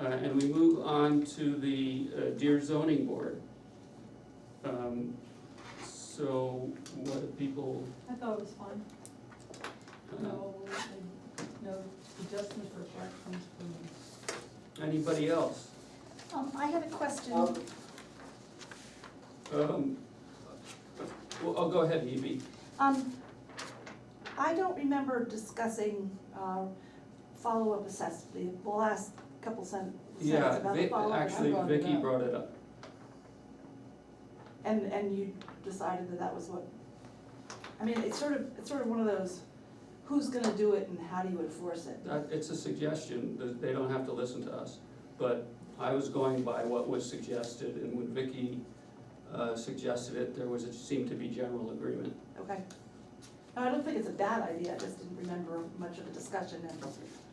Uh, and we move on to the uh, Deer Zoning Board. Um, so what do people, I thought it was fun. uh, No, and no adjustments or corrections for me. anybody else? Um, I had a question. Um, well, I'll go ahead, Hebe. Um, I don't remember discussing, uh, follow-up assessment, the last couple sen- sentences Yeah, about the Vic, follow-up. actually brought it Vicky up. brought it up. And, and you decided that that was what, I mean, it's sort of, it's sort of one of those, who's gonna do it and how do you enforce it? That, it's a suggestion, th- they don't have to listen to us, but I was going by what was suggested, and when Vicky, uh, suggested it, there was, it seemed to be general agreement. Okay. No, I don't think it's a bad idea, I just didn't remember much of the discussion, and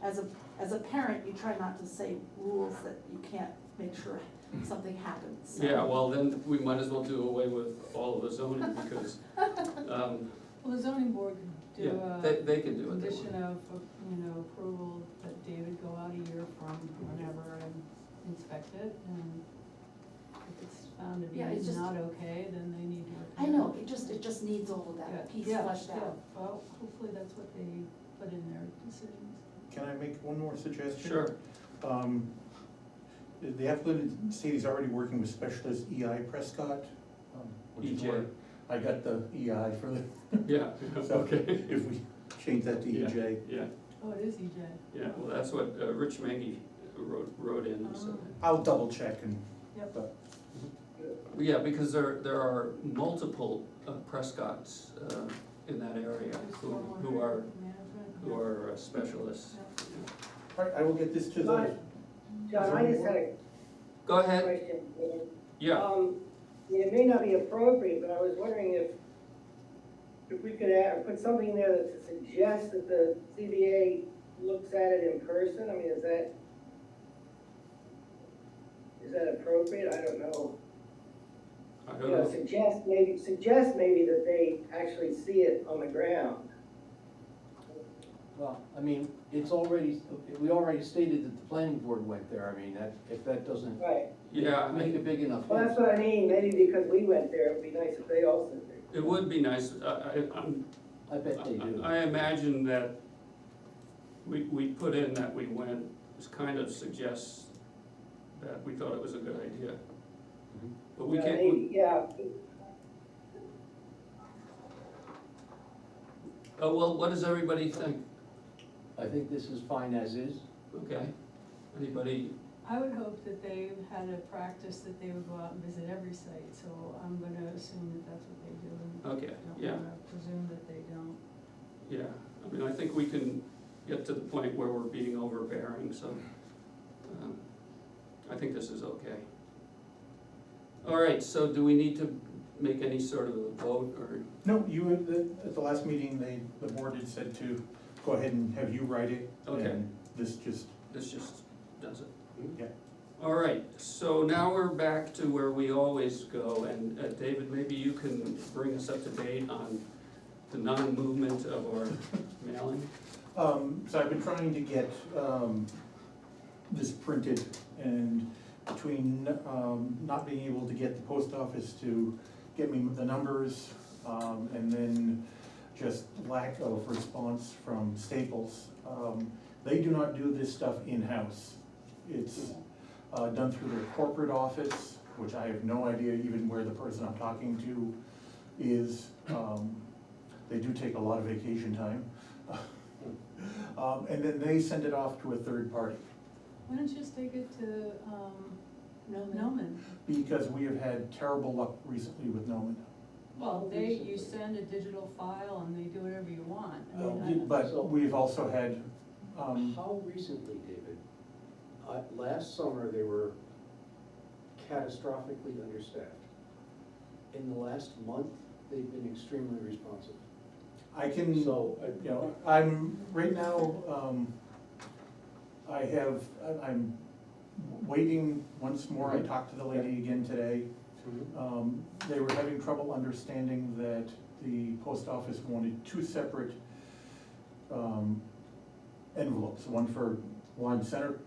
as a, as a parent, you try not to say rules that you can't make sure something happens, so. Yeah, well, then we might as well do away with all of the zoning, because, um, Well, the zoning board could yeah, do a they, they can do it. they condition want. of, you know, approval that David go out a year from whenever and inspect it and if it's found to be Yeah, it's just- not okay, then they need to. I know, it just, it just needs all of Yeah, that piece yeah, fleshed yeah. out. Well, hopefully that's what they put in their decisions. Can I make one more suggestion? Sure, Um, The applicant said he's already working with specialist EI Prescott. um, which is EJ. where I got the EI for the, yeah, so okay, if we change that to E Yeah. EJ. yeah, Oh, it is EJ. yeah, well, that's what uh, Rich Maggie wrote, wrote in, he said that. I'll double check and, Yep. but Oh. Yeah, because there, there are multiple uh, Prescotts uh, in that area There's who, stormwater who are, management, who yeah. are uh, specialists. all right, I will get this to the, Right. John, I just had a Go ahead, question. Ian. Oh. yeah, Um, It may not be appropriate, but I was wondering if, if we could add, put something in there that suggests that the CBA looks at it in person, I mean, is that, is that appropriate? I don't know. I You don't know, know, suggest maybe, suggest maybe that they actually see it on the ground. Well, I mean, it's already, we already stated that the planning board went there, I mean, that, if that doesn't Right, yeah, I make mean, a big enough well, that's difference. what I mean, maybe because we went there, it'd be nice if they also did. it would be nice, I, I, I'm I bet they do. I I imagine that we, we put in that we went, this kind of suggests that we thought it was a good idea. Mhm. But we Yeah, can't, maybe, Yeah, oh, well, what does everybody think? I think this is fine as is. Okay, anybody, I would hope that they had a practice that they would go out and visit every site, so I'm gonna assume that that's what they do. and okay, don't yeah, wanna Presume that they don't. yeah. I mean, I think we can get to the point where we're being overbearing, so, um, I think this is okay. All right, so do we need to make any sort of a vote, or, no, you, at the- at the last meeting, they, the board had said to go ahead and have you write it. Okay. and This just, this just does it? yeah, All right, so now we're back to where we always go, and uh, David, maybe you can bring us up to date on the non-movement of our mailing? Um, so I've been trying to get, um, this printed and between, um, not being able to get the post office to get me the numbers, um, and then just lack of response from Staples. Um, they do not do this stuff in-house. It's, uh, done through their corporate office, which I have no idea even where the person I'm talking to is. Um, they do take a lot of vacation time. Um, and then they send it off to a third party, Why don't you just take it to, um, No, no. Noman? because we have had terrible luck recently with Noman. Well, they, you send a digital file and they do whatever you want. I mean, I- But we've also had, um, How recently, David? Uh, last summer, they were catastrophically understaffed. In the last month, they've been extremely responsive. I can, you So- know, I'm, right now, um, I have, I- I'm waiting once more, I talked to the lady again today. Hmm? Um, They were having trouble understanding that the post office wanted two separate um, envelopes, one for Lime Center